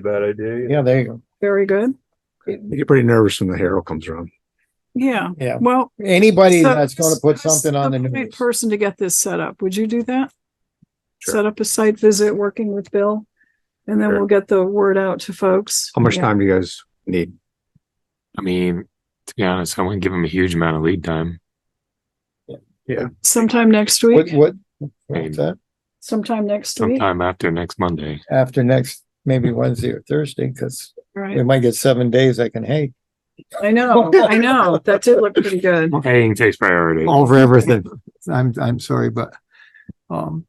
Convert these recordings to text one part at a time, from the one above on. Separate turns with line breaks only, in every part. be a bad idea.
Yeah, there you go.
Very good.
You get pretty nervous when the Herald comes around.
Yeah.
Yeah.
Well.
Anybody
so-
that's going to put
so
something on the
appoint
news.
Person to get this set up. Would you do that?
Sure.
Set up a site visit, working with Bill, and then
Sure.
we'll get the word out to folks.
How much
Yeah.
time do you guys need?
I mean, to be honest, I wouldn't give him a huge amount of lead time.
Sometime next
What,
week,
what, what's that?
sometime next week,
Sometime after next Monday.
After next, maybe Wednesday or Thursday, because we
right?
might get seven days I can hate.
I know, I know. That did look pretty good.
Haying takes priority.
over everything. I'm, I'm sorry, but, um,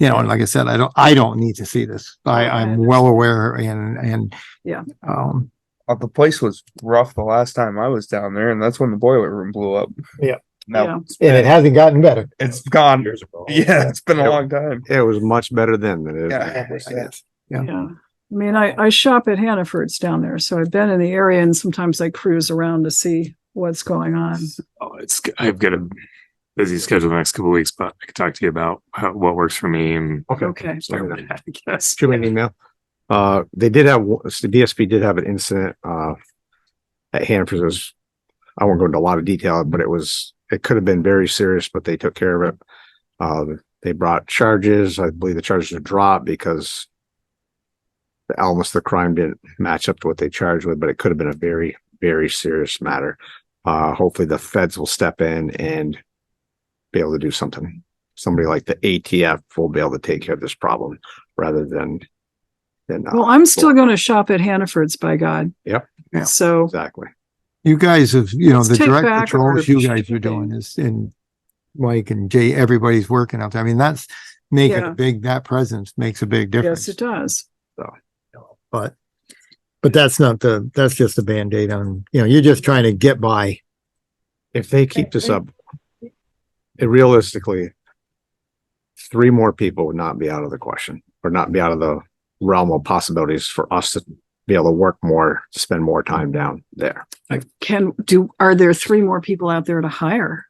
you know, and like I said, I don't, I don't need to see this. I, I'm well aware and, and.
Yeah.
Um,
Uh, the place was rough the last time I was down there, and that's when the boiler room blew up.
Yeah.
Yeah.
Now,
And it hasn't gotten better.
it's gone.
Years ago.
Yeah, it's been
Yeah.
a long time.
It was much better then than it is.
Yeah.
now.
Yeah.
Yeah. I mean, I, I shop at Hannaford's down there, so I've been in the area and sometimes I cruise around to see what's going on.
Oh, it's, I've got a busy schedule the next couple of weeks, but I can talk to you about how, what works for me and
Okay.
start with that, I guess.
Shoot me an email. Uh, they did have, the DSP did have an incident, uh, at Hanford's. It was- I won't go into a lot of detail, but it was, it could have been very serious, but they took care of it. Uh, they brought charges. I believe the charges were dropped because the elements of the crime didn't match up to what they charged with, but it could have been a very, very serious matter. Uh, hopefully the feds will step in and be able to do something. Somebody like the ATF will be able to take care of this problem rather than than uh,
Well, I'm still going to shop at Hannaford's by God.
Yep.
Yeah.
So
exactly.
you guys have, you know,
Let's
the
take
direct
back
patrols
our-
you guys are doing is and Mike and Jay, everybody's working out there. I mean, that's making
Yeah.
a big, that presence makes a big
yes,
difference.
it does.
But, but that's not the, that's just a Band-Aid on, you know, you're just trying to get by.
If they keep this up, it realistically, three more people would not be out of the question or not be out of the realm of possibilities for us to be able to work more, spend more time down there.
Can do, are there three more people out there to hire?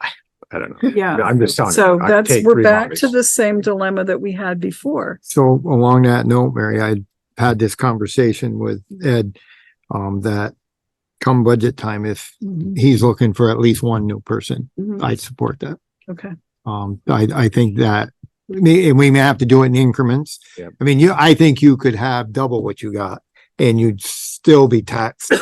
I don't know.
Yeah.
I'm just telling you.
So
I'd
that's,
take
we're
three
back
bodies.
to the same dilemma that we had before.
So along that note, Mary, I had this conversation with Ed, um, that come budget time, if
Mm-hmm.
he's looking for at least one new person,
Mhm.
I'd support that.
Okay.
Um, I, I think that, may- and we may have to do it in increments.
Yep.
I mean, you, I think you could have double what you got and you'd still be taxed.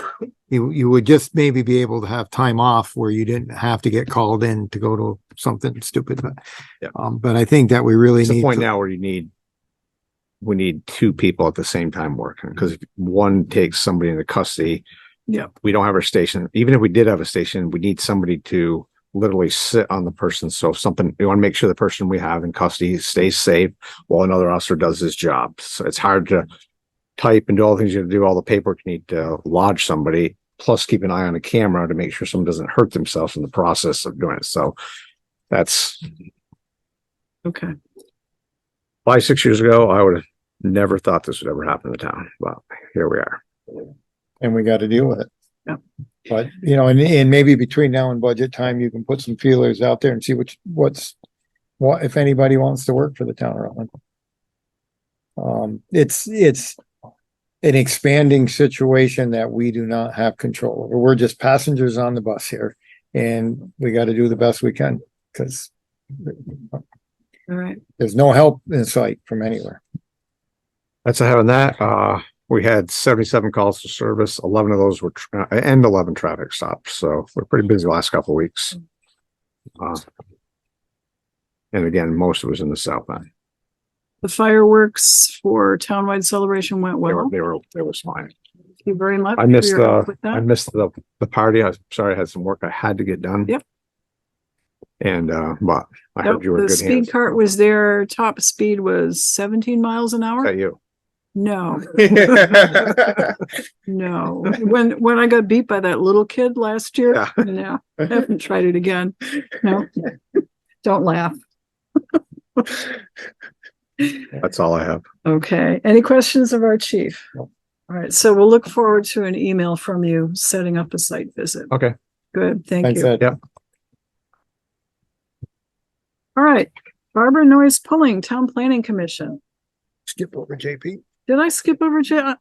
You, you would just maybe be able to have time off where you didn't have to get called in to go to something stupid, but,
Yep.
um, but I think that we really
It's
need.
a point
to-
now where you need, we need two people at the same time working, because if one takes somebody into custody.
Yeah.
We don't have our station. Even if we did have a station, we need somebody to literally sit on the person. So if something, we want to make sure the person we have in custody stays safe while another officer does his job. So it's hard to type and do all the things you have to do, all the paperwork you need to lodge somebody, plus keep an eye on a camera to make sure someone doesn't hurt themselves in the process of doing it. So that's
Okay.
five, six years ago, I would have never thought this would ever happen to town, but here we are.
And we got to deal with it.
Yep.
But, you know, and, and maybe between now and budget time, you can put some feelers out there and see which, what's, what, if anybody wants to work for the town of Rutland. Um, it's, it's an expanding situation that we do not have control over. We're just passengers on the bus here. And we got to do the best we can because
All right.
there's no help in sight from anywhere.
That's having that. Uh, we had seventy-seven calls to service. Eleven of those were, tra- uh, and eleven traffic stops. So we're pretty busy the last couple of weeks. Uh, And again, most of it was in the south end.
The fireworks for townwide celebration went
They were,
well.
they were, they was fine.
Thank you very much.
I missed,
for your help
uh,
with
I
that.
missed the, the party. I'm sorry, I had some work I had to get done.
Yep.
And, uh, but I
Nope,
heard you were in
The
good hands.
speed cart was there. Top speed was seventeen miles an hour.
At you.
No, no. When, when I got beat by that little kid last year,
Yeah.
no, I haven't tried it again. No. Don't laugh.
That's all I have.
Okay. Any questions of our chief? All right. So we'll look forward to an email from you setting up a site visit.
Okay.
Good. Thank
Thanks,
you.
Ed.
All right. Barbara Noyes Pulling, Town Planning Commission.
Skip over JP.
Did I skip over Jay?